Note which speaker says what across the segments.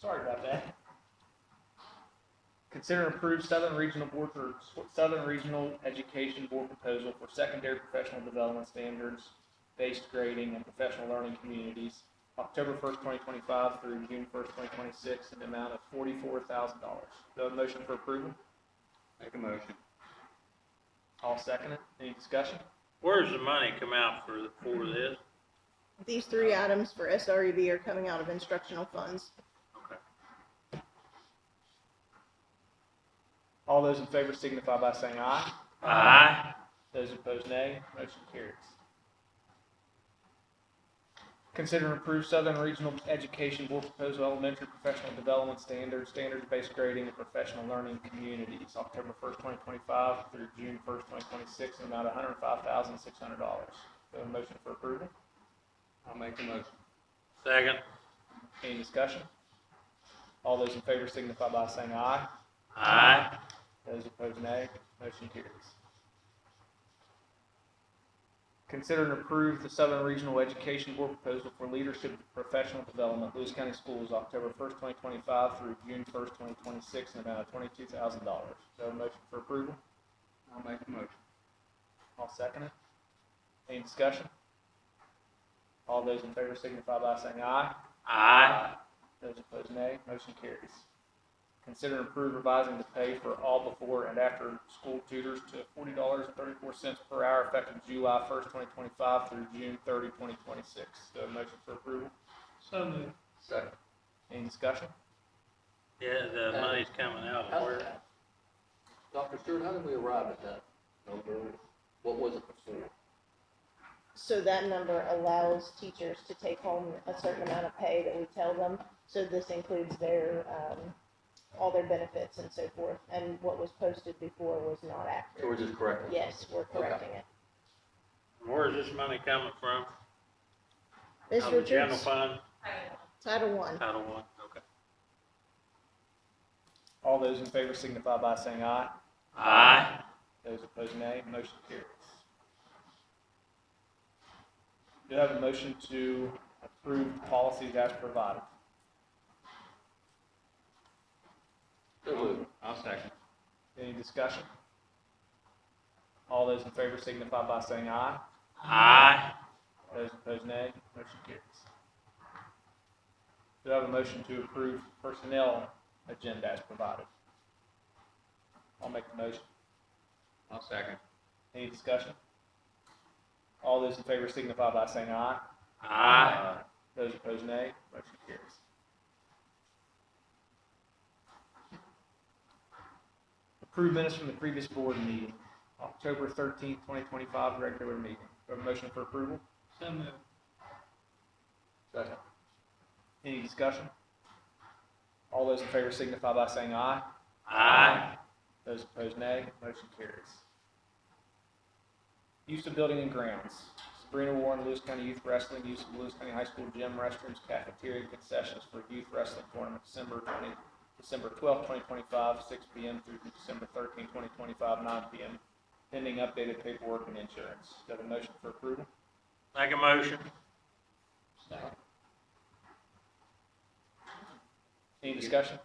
Speaker 1: Sorry about that. Consider and approve Southern Regional Board for Southern Regional Education Board proposal for secondary professional development standards, based grading and professional learning communities, October first, twenty twenty-five through June first, twenty twenty-six, in the amount of forty-four thousand dollars. Do I have a motion for approval?
Speaker 2: Make a motion.
Speaker 1: I'll second it. Any discussion?
Speaker 3: Where's the money come out for, for this?
Speaker 4: These three items for SREB are coming out of instructional funds.
Speaker 1: All those in favor signify by saying aye.
Speaker 3: Aye.
Speaker 1: Those opposed, nay. Motion carries. Consider and approve Southern Regional Education Board proposal elementary professional development standards, standards-based grading and professional learning communities, October first, twenty twenty-five through June first, twenty twenty-six, in the amount of hundred and five thousand, six hundred dollars. Do I have a motion for approval?
Speaker 2: I'll make a motion.
Speaker 3: Second.
Speaker 1: Any discussion? All those in favor signify by saying aye.
Speaker 3: Aye.
Speaker 1: Those opposed, nay. Motion carries. Consider and approve the Southern Regional Education Board proposal for leadership and professional development, Lewis County Schools, October first, twenty twenty-five through June first, twenty twenty-six, in the amount of twenty-two thousand dollars. So a motion for approval?
Speaker 2: I'll make a motion.
Speaker 1: I'll second it. Any discussion? All those in favor signify by saying aye.
Speaker 3: Aye.
Speaker 1: Those opposed, nay. Motion carries. Consider and approve revising the pay for all before and after school tutors to forty dollars and thirty-four cents per hour effective July first, twenty twenty-five through June 30, 2026. Do I have a motion for approval?
Speaker 5: So moved.
Speaker 2: Second.
Speaker 1: Any discussion?
Speaker 3: Yeah, the money's coming out of
Speaker 6: How-
Speaker 3: where?
Speaker 6: Dr. Stewart, how did we arrive at that number? What was it before?
Speaker 4: So that number allows teachers to take home a certain amount of pay that we tell them. So this includes their, um, all their benefits and so forth. And what was posted before was not
Speaker 6: So
Speaker 4: accurate.
Speaker 6: we're just correcting? it?
Speaker 4: Yes, we're correcting it.
Speaker 3: Where's this money coming from?
Speaker 4: Ms.
Speaker 3: Out of the General
Speaker 4: Richards,
Speaker 3: fund,
Speaker 4: Title One.
Speaker 3: Title One, okay.
Speaker 1: All those in favor signify by saying aye.
Speaker 3: Aye.
Speaker 1: Those opposed, nay. Motion carries. Do I have a motion to approve policies as provided?
Speaker 6: So moved.
Speaker 2: I'll second.
Speaker 1: Any discussion? All those in favor signify by saying aye.
Speaker 3: Aye.
Speaker 1: Those opposed, nay. Motion carries. Do I have a motion to approve personnel agenda as provided? I'll make the motion.
Speaker 2: I'll second.
Speaker 1: Any discussion? All those in favor signify by saying aye.
Speaker 3: Aye.
Speaker 1: Those opposed, nay. Motion carries. Approved minutes from the previous board meeting, October thirteenth, twenty twenty-five, regular meeting. Do I have a motion for approval?
Speaker 5: So moved.
Speaker 6: Second.
Speaker 1: Any discussion? All those in favor signify by saying aye.
Speaker 3: Aye.
Speaker 1: Those opposed, nay. Motion carries. Use of building and grounds. Sabrina Warren, Lewis County Youth Wrestling, use of Lewis County High School gym, restrooms, cafeteria, and concessions for youth wrestling tournament, December twenty, December twelfth, twenty twenty-five, six P M through December thirteenth, twenty twenty-five, nine P M, pending updated paperwork and insurance. Do I have a motion for approval?
Speaker 3: Make a motion.
Speaker 5: Second.
Speaker 1: Any discussion?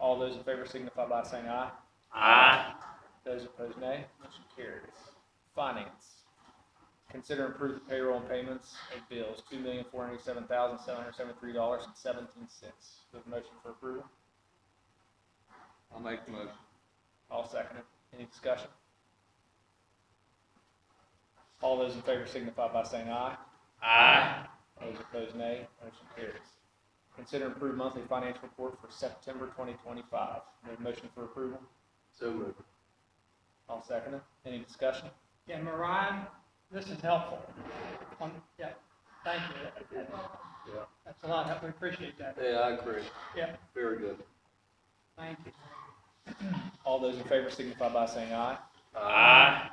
Speaker 1: All those in favor signify by saying aye.
Speaker 3: Aye.
Speaker 1: Those opposed, nay. Motion carries. Finance. Consider and approve the payroll and payments of bills, two million, four hundred seven thousand, seven hundred seventy-three dollars and seventeen cents. Do I have a motion for approval?
Speaker 2: I'll make the motion.
Speaker 1: I'll second it. Any discussion? All those in favor signify by saying aye.
Speaker 3: Aye.
Speaker 1: Those opposed, nay. Motion carries. Consider and approve monthly financial report for September twenty twenty-five. Do I have a motion for approval?
Speaker 6: So moved.
Speaker 1: I'll second it. Any discussion?
Speaker 5: Yeah, Mariah, this is helpful. Um, yeah, thank you.
Speaker 6: Yeah.
Speaker 5: That's a lot, we appreciate that.
Speaker 6: Yeah, I agree.
Speaker 5: Yeah.
Speaker 6: Very good.
Speaker 5: Thank you.
Speaker 1: All those in favor signify by saying aye.
Speaker 3: Aye.